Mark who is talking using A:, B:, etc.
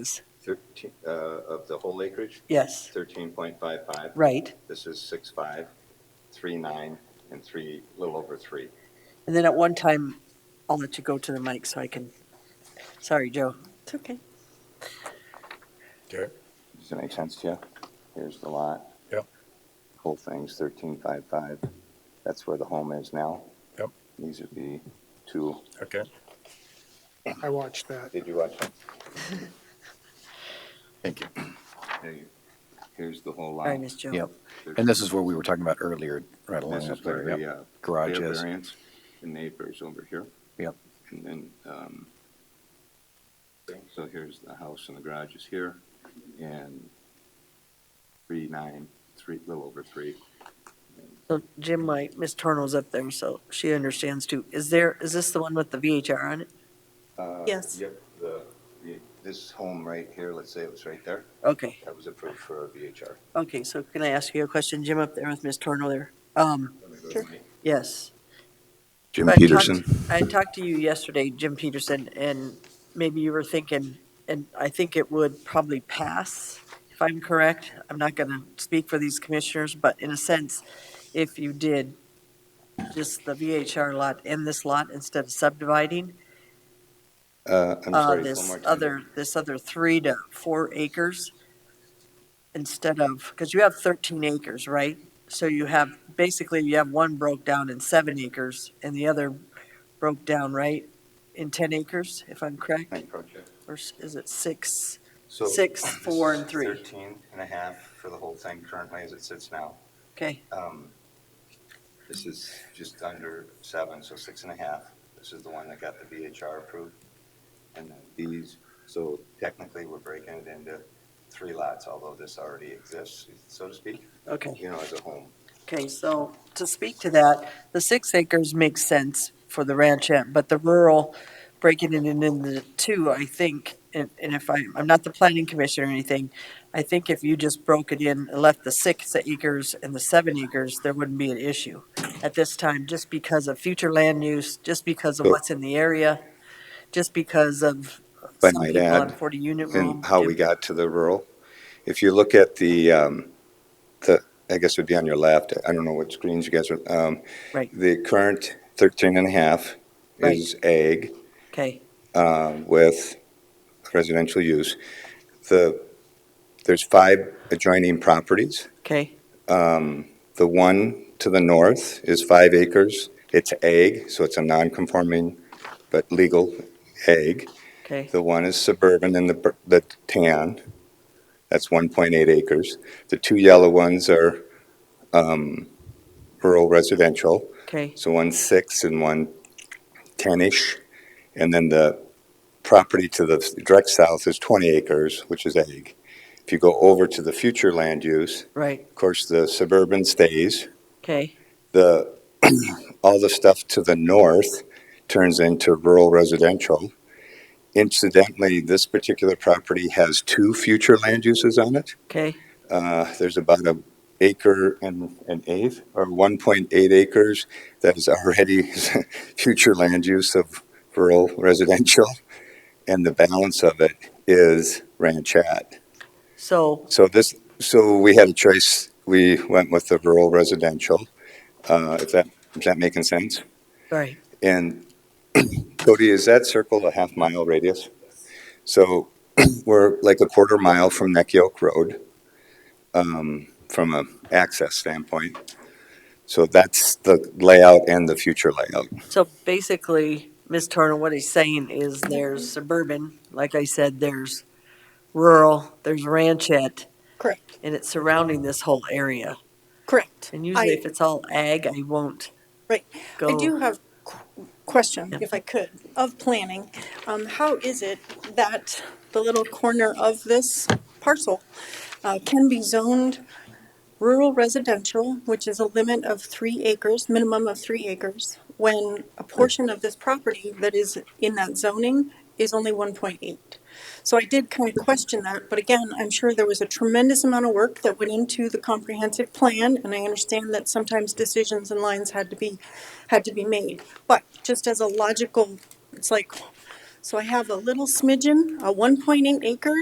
A: is.
B: 13, uh, of the whole acreage,
A: Yes,
B: 13.55.
A: right.
B: This is 6.5, 3.9, and 3, little over 3.
A: And then at one time, I'll let you go to the mic so I can, sorry, Joe. It's okay.
C: Okay,
B: Does that make sense to you? Here's the lot.
C: Yep.
B: Whole thing's 13.55. That's where the home is now.
C: Yep.
B: These would be two.
C: okay.
D: I watched that.
B: Did you watch it? Thank you. Here's the whole lot.
A: Sorry, Miss Joe.
E: Yep. And this is what we were talking about earlier, right along
B: This is
E: up
B: where
E: there.
B: the
E: Yep.
B: uh,
E: Garage
B: rear
E: is.
B: variance, The neighbors over here.
E: Yep.
B: And then, um, so here's the house and the garage is here, and three nine, three, little over three.
A: So Jim, my, Miss Torno's up there, so she understands too. Is there, is this the one with the VHR on it?
B: Uh,
A: Yes.
B: Yep, the, the- this home right here, let's say it was right there,
A: Okay,
B: that was approved for a VHR.
A: okay, so can I ask you a question, Jim, up there with Miss Torno there? Um,
B: Let me go to my-
A: yes.
B: Jim
A: I talked-
B: Peterson.
A: I talked to you yesterday, Jim Peterson, and maybe you were thinking, and I think it would probably pass, if I'm correct. I'm not going to speak for these commissioners, but in a sense, if you did just the VHR lot and this lot instead of subdividing,
B: Uh, I'm
A: uh,
B: sorry, one
A: this
B: more time.
A: other, this other three to four acres instead of, because you have 13 acres, right? So you have, basically you have one broke down in seven acres and the other broke down, right? In 10 acres, if I'm correct,
B: Thank you, Coach.
A: or s- is it six?
B: So
A: Six,
B: this
A: four,
B: is
A: and three.
B: Thirteen and a half for the whole thing currently as it sits now.
A: Okay,
B: Um, This is just under seven, so six and a half. This is the one that got the VHR approved. And then these, so technically, we're breaking it into three lots, although this already exists, so to speak,
A: okay.
B: you know, as a home.
A: Okay, so to speak to that, the six acres makes sense for the ranchette, but the rural, breaking it into the two, I think, and, and if I, I'm not the planning commission or anything, I think if you just broke it in and left the six acres and the seven acres, there wouldn't be an issue at this time, just because of future land use, just because of
B: So-
A: what's in the area, just because of
B: If I
A: some
B: might
A: people on
B: add,
A: forty unit rule.
B: and how we got to the rural. If you look at the, um, the, I guess it would be on your left, I don't know what screens you guys are, um,
A: Right.
B: the current thirteen and a half
A: Right.
B: is ag
A: Okay,
B: um, with residential use. The, there's five adjoining properties.
A: okay,
B: The one to the north is five acres. It's ag, so it's a non-conforming but legal ag.
A: okay,
B: The one is suburban and the, bur- the tan, that's 1.8 acres. The two yellow ones are um, rural residential,
A: okay,
B: so one's six and one 10-ish. And then the property to the s- direct south is 20 acres, which is ag. If you go over to the future land use,
A: right,
B: of course, the suburban stays.
A: okay,
B: The, all the stuff to the north turns into rural residential. Incidentally, this particular property has two future land uses on it.
A: okay,
B: Uh, There's about an acre and an eighth, or 1.8 acres that is already future land use of rural residential, and the balance of it is ranchette.
A: so.
B: So this, so we had a choice, we went with the rural residential, uh, if that, is that making sense?
A: Right,
B: And Cody, is that circle a half mile radius? So we're like a quarter mile from Neck Yoke Road, um, from a access standpoint. So that's the layout and the future layout.
A: so basically, Ms. Turner, what he's saying is there's suburban, like I said, there's rural, there's ranchette,
F: Correct,
A: and it's surrounding this whole area.
F: correct.
A: And usually
F: I-
A: if it's all ag, I won't
F: Right. I
A: go.
F: do have qu- question,
A: Yeah.
F: if I could, of planning. Um, how is it that the little corner of this parcel uh, can be zoned rural residential, which is a limit of three acres, minimum of three acres, when a portion of this property that is in that zoning is only one point eight? So I did kind of question that, but again, I'm sure there was a tremendous amount of work that went into the comprehensive plan, and I understand that sometimes decisions and lines had to be, had to be made. But just as a logical, it's like, so I have a little smidgen, a one point eight acres.